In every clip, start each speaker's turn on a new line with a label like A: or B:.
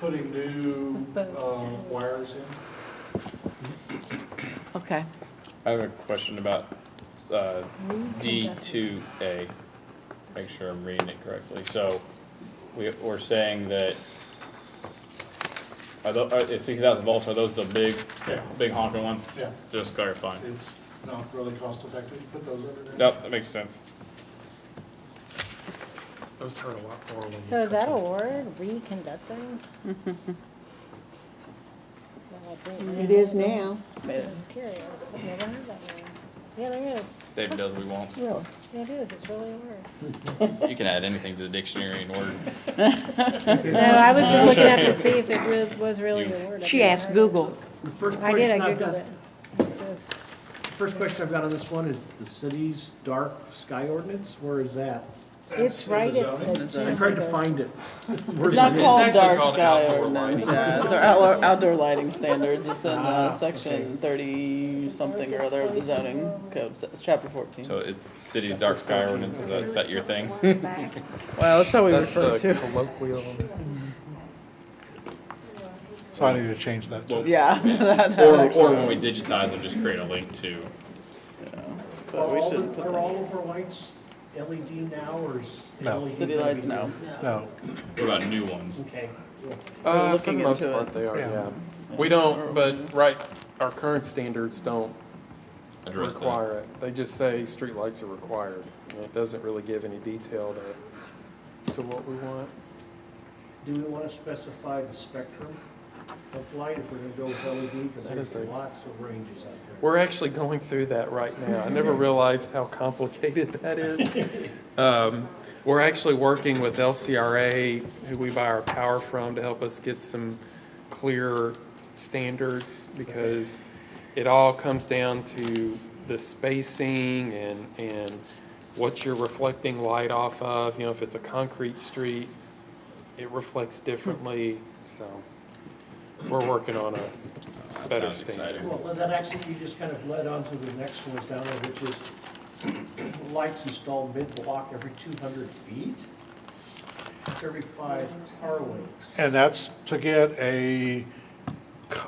A: putting new
B: That's both.
A: um, wires in?
C: Okay.
D: I have a question about uh, D2A. Make sure I'm reading it correctly. So we- we're saying that, are tho- are- it's 60,000 volts, are those the big,
A: Yeah.
D: big honking ones?
A: Yeah.
D: Just clarifying.
A: It's not really cost effective to put those under there?
D: Nope, that makes sense.
E: Those hurt a lot more when you
B: So is
E: touch
B: that a
E: them.
B: word, reconducting? Well, I didn't
F: It
B: realize
F: is now.
B: I was curious, I've never heard that one. Yeah, there is,
D: Dave does what he wants.
F: Really?
B: Yeah, it is, it's really a word.
D: You can add anything to the dictionary in order.
B: No, I was just looking up to see if it was, was really a word. I
C: She
B: didn't
C: asked
B: know.
C: Google.
G: The first
B: I did, I
G: question I've
B: Googled
G: got,
B: it. It exists.
G: the first question I've got on this one is the city's dark sky ordinance, where is that?
B: It's
A: in the
B: right
A: zoning.
B: at the.
G: I
B: Johnson
G: tried to
B: Center.
G: find it.
H: It's
G: Where's
H: not
G: it?
H: called
E: actually
H: dark
E: called
H: sky
E: outdoor
H: ordinance,
E: lighting.
H: yeah, it's our outdoor, outdoor lighting standards, it's in,
G: Ah,
H: uh,
G: okay.
H: section thirty something or other of the zoning code, So it's chapter fourteen.
D: So it, city's dark sky ordinance, is that, is that your thing?
H: Well, that's how we refer to, it.
E: colloquial.
A: So I need to change that to.
H: yeah, to that,
D: Or, or when we digitize them, just create a link to.
G: Are
H: but we
G: all,
H: should
G: the-
H: put
G: are
H: that.
G: all of our lights LED now, or is E
A: No.
G: LED
H: City
G: gonna
H: lights,
G: be-
H: no.
A: No,
D: What about new ones?
G: Okay.
E: Uh, for
H: looking
E: the most
H: into
E: part,
H: it.
E: they are,
A: Yeah.
E: yeah. We don't, but right, our current standards don't
D: Address that.
E: require it. They just say streetlights are required. And It doesn't really give any detail to, to what we want.
G: Do we want to specify the spectrum of light if we're going to go with LED? Because
E: That
G: there's
E: is a-
G: lots of ranges out there.
E: We're actually going through that right now. I never realized how complicated that is. Um, We're actually working with LCRA, who we buy our power from, to help us get some clear standards because it all comes down to the spacing and, and what you're reflecting light off of. You know, if it's a concrete street, it reflects differently, so we're working on a
D: That
E: better
D: sounds
E: standard.
D: exciting.
G: Well, well, that actually, you just kind of led on to the next one is down there, which is lights installed mid-block every 200 feet? It's every five car lengths.
A: and that's to get a,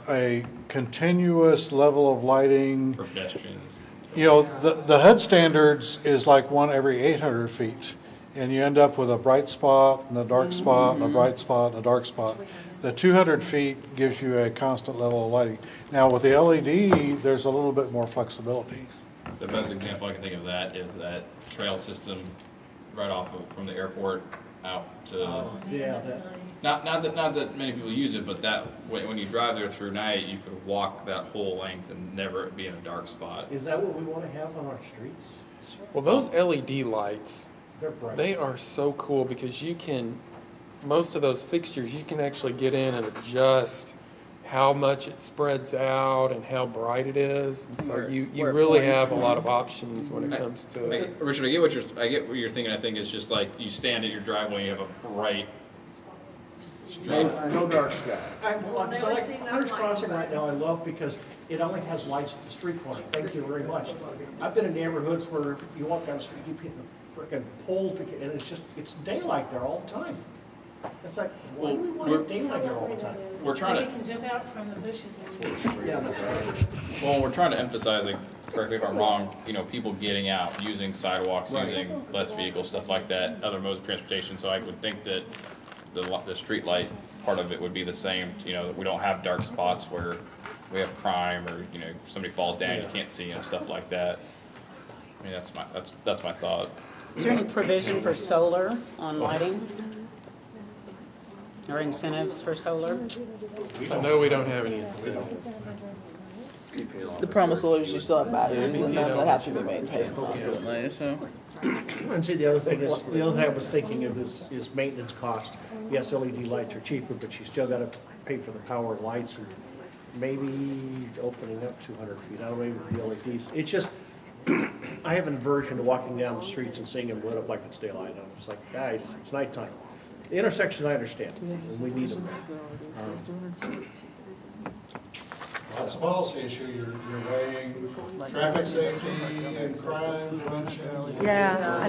A: a continuous level of lighting.
D: For pedestrians.
A: You know, the, the HUD standards is like one every eight hundred feet, and you end up with a bright spot and a dark spot and a bright spot and a dark spot. The two hundred feet gives you a constant level of lighting. Now, with the LED, there's a little bit more flexibility.
D: The best example I can think of that is that trail system right off of, from the airport out to,
G: Yeah, that,
D: not, not that, not that many people use it, but that, when, when you drive there through night, you could walk that whole length and never be in a dark spot.
G: is that what we want to have on our streets?
E: Well, those LED lights,
G: They're bright.
E: they are so cool because you can, most of those fixtures, you can actually get in and adjust how much it spreads out and how bright it is. And so
H: Where-
E: you, you
H: where it
E: really
H: points.
E: have a lot of options when
D: I-
E: it comes
D: I-
E: to,
D: Richard, I get what you're, I get what you're thinking, I think it's just like, you stand at your driveway, you have a bright,
G: No dark sky. I, well, I'm- so like Hunter's Crossing right now, I love because it only has lights at the street corner. Thank you very much. I've been in neighborhoods where you walk down the street, you get a frickin' pole, to get- and it's just, it's daylight there all the time. It's like, why do we
D: Well,
G: want daylight there all the time?
D: we're trying to.
G: Yeah, that's right.
D: Well, we're trying to emphasize, like, correct me if I'm wrong, you know, people getting out, using sidewalks, using less vehicles, stuff like that, other modes of transportation, so I would think that the, lo- the streetlight part of it would be the same, you know, that we don't have dark spots where we have crime, or, you know, somebody falls down, you can't see them, stuff like that. I mean, that's my, that's, that's my thought.
I: Is there any provision for solar on lighting? Or incentives for solar?
E: I know we don't have any incentives.
H: The promissory is you still have batteries and them that have to be maintained constantly, so.
G: And see, the other thing is, the other thing I was thinking of is, is maintenance cost. Yes, LED lights are cheaper, but you still gotta pay for the power and lights and maybe opening up two hundred feet, I don't know, maybe with the LEDs. It's just, I have an aversion to walking down the streets and seeing them lit up like it's daylight. I'm just like, guys, it's nighttime. The intersection, I understand, and we need them.
A: On this policy issue, you're, you're weighing traffic safety and crime prevention.
C: Yeah,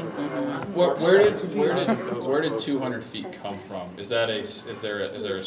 D: Where, where did, where did, where did two hundred feet come from? Is that a, s- is there, a- is there a